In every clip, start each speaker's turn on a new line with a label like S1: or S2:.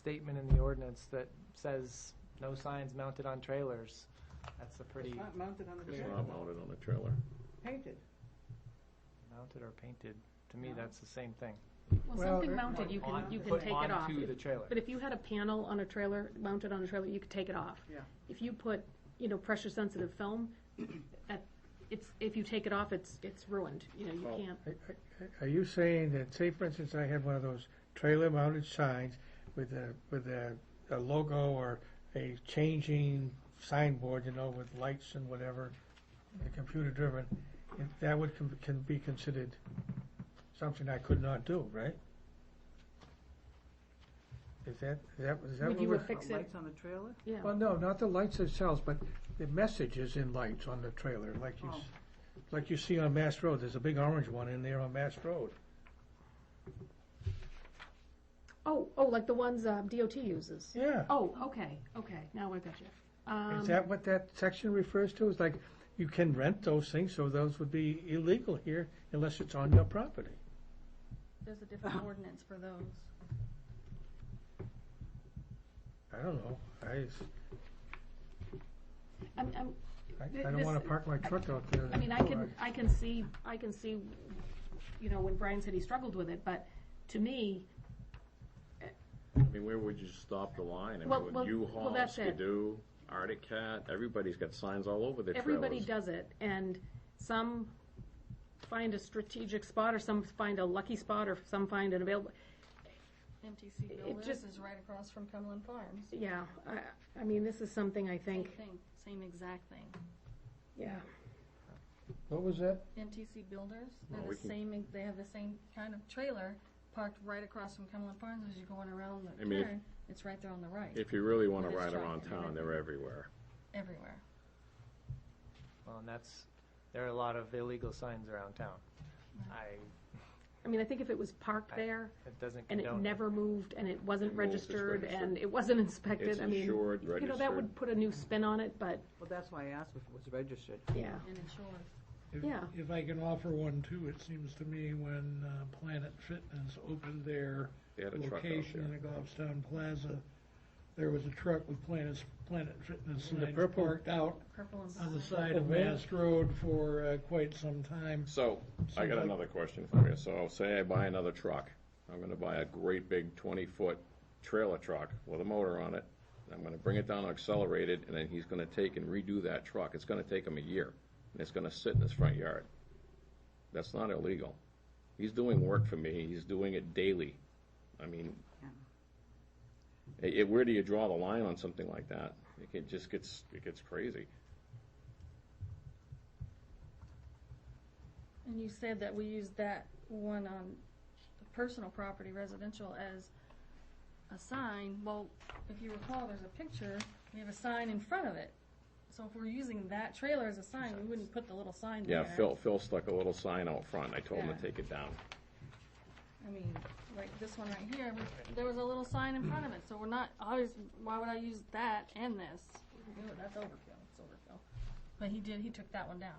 S1: statement in the ordinance that says no signs mounted on trailers. That's a pretty,
S2: It's not mounted on the
S3: It's
S2: trailer.
S3: not mounted on a trailer.
S2: Painted.
S1: mounted or painted, to me, that's the same thing.
S4: Well,
S5: Well,
S4: something
S5: it-
S4: mounted, you can,
S1: On-
S4: you can
S1: put
S4: take it off.
S1: Onto
S4: If-
S1: the trailer.
S4: But if you had a panel on a trailer, mounted on a trailer, you could take it off.
S2: Yeah.
S4: If you put, you know, pressure sensitive film, at, it's, if you take it off, it's, it's ruined, you know, you
S3: Oh.
S4: can't.
S5: Are you saying that, say for instance, I had one of those trailer mounted signs with a, with a, a logo or a changing signboard, you know, with lights and whatever, and computer driven, if that would, con- can be considered something I could not do, right? Is that, is that, is that
S4: Would
S5: what
S4: you
S5: we're?
S4: affix it?
S2: Lights on the trailer?
S4: Yeah.
S5: Well, no, not the lights themselves, but the message is in lights on the trailer, like you, s- like you see on Mass Road. There's a big orange one in there on Mass Road.
S4: Oh, oh, like the ones uh, DOT uses.
S5: Yeah.
S4: Oh, okay, okay, now I got you.
S5: Is
S4: Um,
S5: that what that section refers to? It's like, you can rent those things, so those would be illegal here unless it's on your property.
S6: There's a different ordinance for those.
S5: I don't know. I, s-
S4: I'm, I'm,
S5: I- I don't wanna
S4: This-
S5: park my truck out there.
S4: I mean, I can, I can see, I can see, you know, when Brian said he struggled with it, but to me,
S3: I mean, where would you stop the line? I
S4: Well,
S3: mean,
S4: well,
S3: with
S4: well,
S3: U-Haul,
S4: that's it.
S3: Skidoo, Arctic Cat, everybody's got signs all over their trailers.
S4: everybody does it, and some find a strategic spot, or some find a lucky spot, or some find an available,
S6: MTC
S4: It
S6: Villas
S4: just-
S6: is right across from Cumberland Farms.
S4: yeah, I, I mean, this is something I
S6: Same
S4: think,
S6: thing, same exact thing.
S4: yeah.
S5: What was that?
S6: MTC Builders,
S3: Well,
S6: they're
S3: we
S6: the
S3: can-
S6: same, they have the same kind of trailer parked right across from Cumberland Farms as you're going around
S3: I
S6: the
S3: mean, if-
S6: turn. It's right there on the right,
S3: If you really wanna
S6: With his
S3: ride
S6: truck
S3: around
S6: and
S3: town, they're everywhere.
S6: everywhere.
S1: Well, and that's, there are a lot of illegal signs around town. I,
S4: I mean, I think if it was parked there,
S1: it doesn't
S4: and it
S1: condone.
S4: never moved, and it wasn't
S3: It moved, it's
S4: registered, and
S3: registered.
S4: it wasn't inspected,
S3: It's
S4: I mean,
S3: insured,
S4: you know, that would
S3: registered.
S4: put a new spin on it, but,
S2: Well, that's why I asked if it was registered.
S4: yeah.
S6: And insured.
S7: If-
S4: Yeah.
S7: If I can offer one too, it seems to me when uh, Planet Fitness opened their
S3: They had a truck out
S7: location in
S3: there.
S7: the Goffstown Plaza, there was a truck with Planet, Planet Fitness
S5: In the
S7: signs
S5: purple-
S7: parked out
S6: Purple and
S7: on
S6: black.
S7: the side of
S5: Purple van?
S7: Mass Road for uh, quite some time.
S3: So, I
S7: Seems
S3: got
S7: like-
S3: another question for you. So, say I buy another truck. I'm gonna buy a great big twenty-foot trailer truck with a motor on it. and I'm gonna bring it down, accelerate it, and then he's gonna take and redo that truck. It's gonna take him a year. And it's gonna sit in his front yard. That's not illegal. He's doing work for me. He's doing it daily. I mean, it, it- where do you draw the line on something like that? It can- just gets, it gets crazy.
S6: And you said that we use that one on the personal property residential as a sign. Well, if you recall, there's a picture, we have a sign in front of it. So if we're using that trailer as a sign, we wouldn't put the little sign there.
S3: Yeah, Phil, Phil stuck a little sign out front. I told him
S6: Yeah.
S3: to take it down.
S6: I mean, like this one right here, we- there was a little sign in front of it, so we're not, always, why would I use that and this? No, That's overkill, it's overkill. But he did, he took that one down.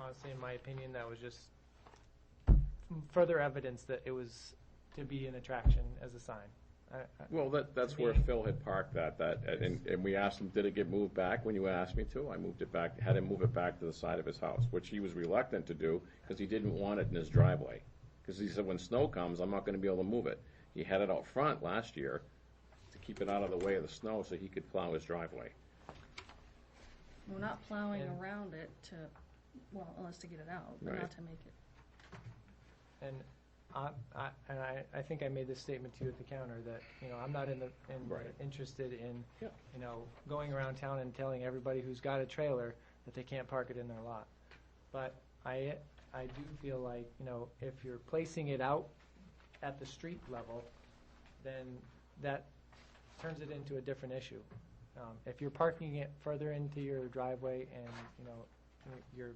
S1: Honestly, in my opinion, that was just further evidence that it was to be an attraction as a sign. I, I,
S3: Well, that, that's where Phil had parked that, that, and, and we asked him, did it get moved back when you asked me to? I moved it back, had him move it back to the side of his house, which he was reluctant to do, because he didn't want it in his driveway. Because he said, when snow comes, I'm not gonna be able to move it. He had it out front last year to keep it out of the way of the snow so he could plow his driveway.
S6: We're not plowing
S1: Yeah.
S6: around it to, well, unless to get it out, but
S3: Right.
S6: not to make it.
S1: And I, I, and I, I think I made this statement to you at the counter that, you know, I'm not in the, in,
S3: Right.
S1: interested in,
S3: Yeah.
S1: you know, going around town and telling everybody who's got a trailer that they can't park it in their lot. But I, I do feel like, you know, if you're placing it out at the street level, then that turns it into a different issue. Um, if you're parking it further into your driveway and, you know, you're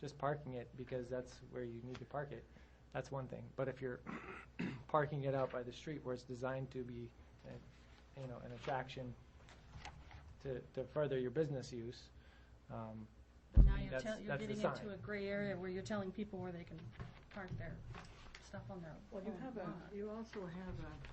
S1: just parking it because that's where you need to park it, that's one thing. But if you're parking it out by the street where it's designed to be, uh, you know, an attraction to, to further your business use, um,
S6: But now
S1: mean,
S6: you're
S1: that's-
S6: tell, you're
S1: that's the
S6: getting
S1: sign.
S6: into a gray area where you're telling people where they can park their stuff on their
S2: Well, you
S6: own
S2: have a,
S6: lot.
S2: you also have a